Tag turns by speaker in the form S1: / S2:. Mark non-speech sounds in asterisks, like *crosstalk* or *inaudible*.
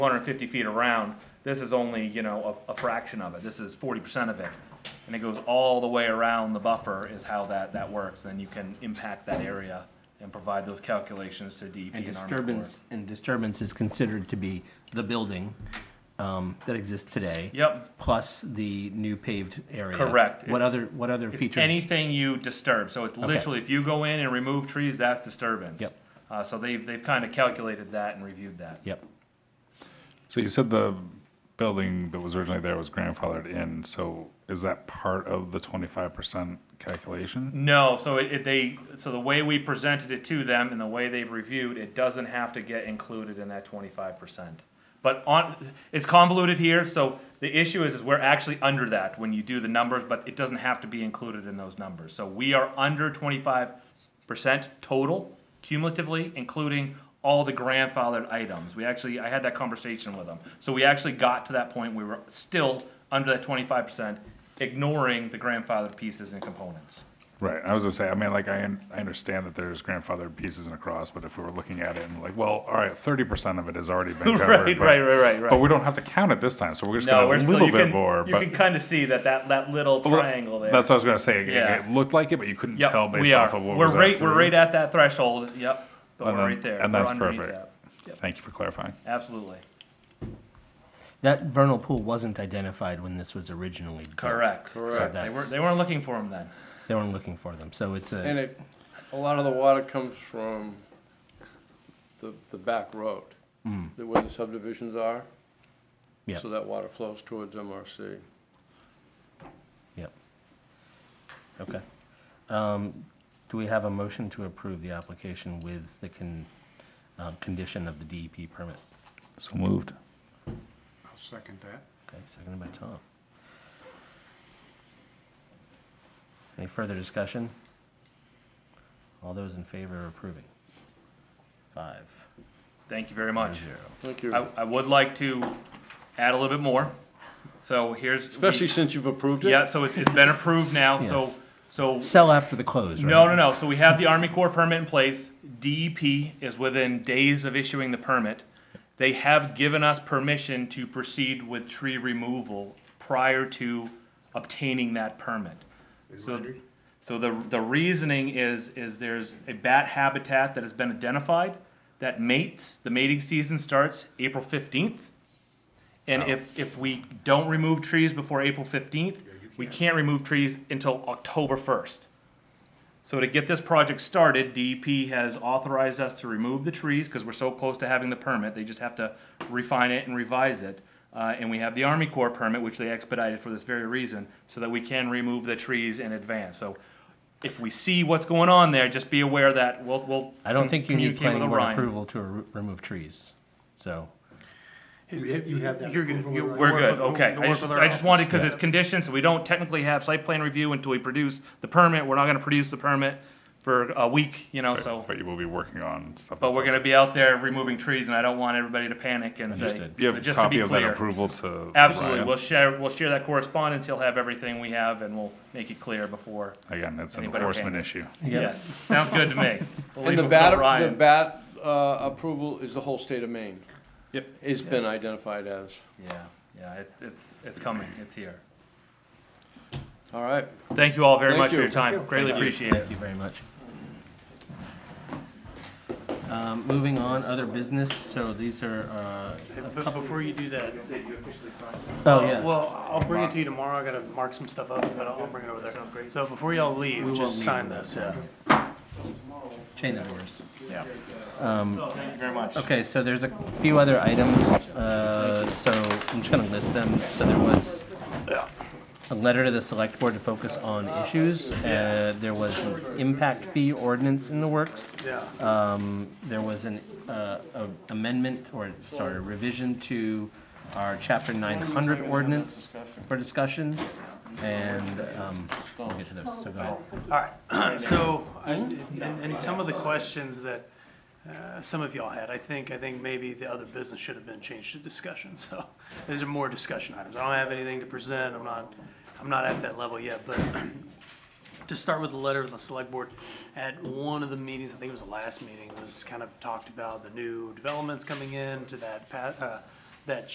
S1: 250 feet around. This is only, you know, a, a fraction of it. This is 40% of it. And it goes all the way around the buffer is how that, that works. Then you can impact that area and provide those calculations to DEP
S2: And
S1: and Army Corps.
S2: disturbance, and disturbance is considered to be the building um, that exists today.
S1: Yep.
S2: Plus the new paved area.
S1: Correct.
S2: What other, what other
S1: It's
S2: features?
S1: anything you disturb, so it's literally, if you go in and remove trees, that's disturbance.
S2: Yep.
S1: Uh, so they've, they've kind of calculated that and reviewed that.
S2: Yep.
S3: So you said the building that was originally there was grandfathered in, so is that part of the twenty-five percent calculation?
S1: No, so it, it, they, so the way we presented it to them and the way they've reviewed, it doesn't have to get included in that twenty-five percent. But on, it's convoluted here, so the issue is, is we're actually under that when you do the numbers, but it doesn't have to be included in those numbers. So we are under twenty-five percent total cumulatively, including all the grandfathered items. We actually, I had that conversation with them. So we actually got to that point, we were still under that twenty-five percent, ignoring the grandfathered pieces and components.
S3: Right, I was gonna say, I mean, like, I, un- I understand that there's grandfathered pieces and across, but if we were looking at it and like, well, all right, thirty percent of it has already been covered.
S1: *laughs* Right,
S3: but-
S1: right, right, right, right.
S3: But we don't have to count it this time, so we're just
S1: No,
S3: gonna
S1: we're
S3: a
S1: still,
S3: little
S1: you
S3: bit
S1: can,
S3: more,
S1: you
S3: but.
S1: can kind of see that, that, that little
S3: Well,
S1: triangle there.
S3: That's what I was gonna say, It-
S1: Yeah.
S3: it looked like it, but you couldn't
S1: Yep,
S3: tell
S1: we
S3: based
S1: are.
S3: off of what
S1: we're
S3: was
S1: right,
S3: after.
S1: we're right at that threshold. Yep, but
S3: And
S1: we're
S3: then-
S1: right there.
S3: and
S1: We're
S3: that's
S1: underneath
S3: perfect.
S1: that. Yep,
S3: Thank you for clarifying.
S1: absolutely.
S2: That vernal pool wasn't identified when this was originally built.
S1: Correct.
S2: Correct.
S1: They weren't,
S2: that's-
S1: they weren't looking for him then.
S2: They weren't looking for them, so it's
S4: And
S2: a,
S4: it, a lot of the water comes from the, the back road,
S1: Mm.
S4: the where the subdivisions are.
S2: Yeah.
S4: So that water flows towards MRC.
S2: yep. Okay. Um, Do we have a motion to approve the application with the con, um, condition of the DEP permit?
S3: So moved.
S5: I'll second that.
S2: Okay, seconded by Tom. Any further discussion? All those in favor of approving? Five.
S1: Thank you very much.
S4: Thank you.
S1: I, I would like to add a little bit more. So here's. we-
S4: Especially since you've approved it.
S1: Yeah, so it's, it's been approved now, so, so
S2: Sell after the close, right?
S1: No, no, no. So we have the Army Corps permit in place. DEP is within days of issuing the permit. They have given us permission to proceed with tree removal prior to obtaining that permit. So, so the, the reasoning is, is there's a bat habitat that has been identified that mates, the mating season starts April fifteenth. And if, if we don't remove trees before April fifteenth, we can't remove trees until October first. So to get this project started, DEP has authorized us to remove the trees, because we're so close to having the permit, they just have to refine it and revise it. Uh, and we have the Army Corps permit, which they expedited for this very reason, so that we can remove the trees in advance. So if we see what's going on there, just be aware that we'll, we'll.
S2: I don't think you need
S1: communicate with
S2: planning board
S1: Orion.
S2: approval to re- remove trees, so.
S5: You have that
S6: You're good.
S5: approval
S6: You-
S5: already?
S1: We're good,
S6: We'll-
S1: okay.
S6: we'll
S1: I
S6: work
S1: just,
S6: with our
S1: I just wanted, because
S2: office.
S1: it's conditioned, so we don't technically have site plan review until we produce the permit. We're not gonna produce the permit for a week, you know, so.
S3: But you will be working on stuff.
S1: But
S3: that's
S1: we're
S3: up-
S1: gonna be out there removing trees, and I don't want everybody to panic and say,
S2: Understood.
S3: You have a
S1: just to
S3: copy
S1: be
S3: of that
S1: clear.
S3: approval to.
S1: Absolutely,
S3: Ryan?
S1: we'll share, we'll share that correspondence, he'll have everything we have, and we'll make it clear before.
S3: Again, it's an
S1: Anybody okay?
S3: enforcement issue.
S1: Yes, sounds good to me. We'll
S4: And
S1: leave
S4: the
S1: it with
S4: bat, the
S1: Orion.
S4: bat uh, approval is the whole state of Maine.
S1: Yep.
S4: It's been identified as.
S1: Yeah, yeah, it's, it's, it's coming, it's here.
S4: All right.
S1: Thank you all very
S4: Thank
S1: much for
S4: you.
S1: your time, greatly appreciate it.
S2: Thank you very much. Um, Moving on, other business, so these are, uh,
S6: But before you do that, uh,
S2: oh, yeah,
S6: well, I'll bring it to you tomorrow. I gotta mark some stuff up, but I'll bring it over there. So before y'all leave,
S2: will
S6: just
S2: leave
S6: sign
S2: with
S6: this, yeah.
S2: chain of doors.
S6: Yeah.
S1: Thank you very much.
S2: Okay, so there's a few other items, uh, so I'm just gonna list them. So there was a letter to the select board to focus on issues. Uh, there was an impact fee ordinance in the works.
S6: Yeah.
S2: Um, there was an, uh, a amendment or, sorry, revision to our chapter nine hundred ordinance for discussion. And, um, we'll get to those, so go ahead.
S6: All right, *clears throat* so, and, and some of the questions that, uh, some of y'all had, I think, I think maybe the other business should have been changed to discussion, *laughs* so these are more discussion items. I don't have anything to present, I'm not, I'm not at that level yet, but *clears throat* to start with the letter of the select board, at one of the meetings, I think it was the last meeting, was kind of talked about the new developments coming in to that, pa- uh, that